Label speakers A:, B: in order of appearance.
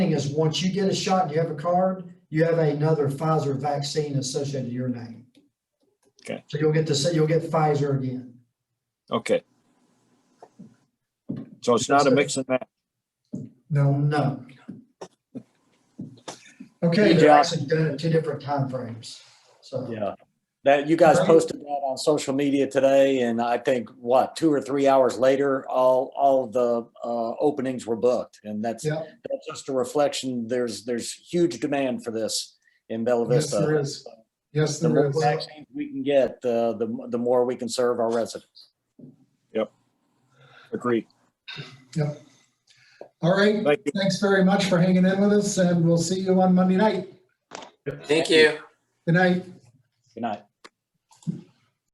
A: thing is, once you get a shot and you have a card, you have another Pfizer vaccine associated to your name.
B: Okay.
A: So you'll get to say, you'll get Pfizer again.
B: Okay. So it's not a mix and match.
A: No, no. Okay,
C: Hey,
A: they're
C: Josh.
A: actually done it in two different timeframes, so.
C: Yeah. That, you guys
A: Right.
C: posted that on social media today and I think what, two or three hours later, all, all the uh, openings were booked. And that's,
A: Yeah.
C: that's just a reflection. There's, there's huge demand for this in Bella
D: Yes,
C: Vista.
D: there is. Yes,
C: uh, The
D: there
C: more
D: is.
C: vaccines we can get, the, the, the more we can serve our residents.
B: Agreed.
D: All right.
B: Thank you.
D: Thanks very much for hanging in with us and we'll see you on Monday night.
E: Thank you.
D: Good night.
C: Good night.